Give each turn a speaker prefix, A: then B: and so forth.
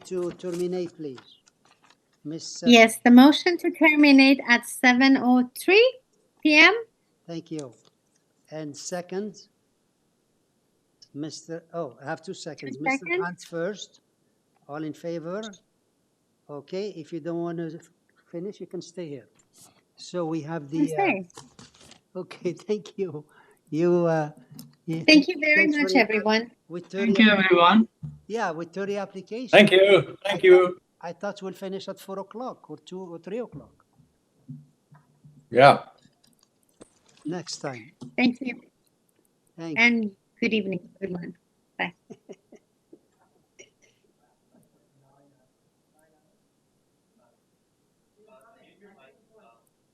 A: to terminate, please? Miss. uh,
B: Yes, the motion to terminate at 7:03 PM?
A: Thank you. And second? Mr., oh, I have two seconds.
B: Two
A: Mr.
B: seconds.
A: Hunt first. All in favor? Okay, if you don't want to finish, you can stay here. So we have the. uh,
B: Okay.
A: Okay, thank you. You, uh. you-
B: Thank you very
A: thanks for
B: much,
A: your-
B: everyone.
A: With thirty,
C: Thank you, everyone.
A: yeah, with thirty applications.
D: Thank you. Thank you.
A: I thought we'll finish at four o'clock or two or three o'clock
D: Yeah.
A: next time.
B: Thank you,
A: Thank you.
B: and good evening, everyone.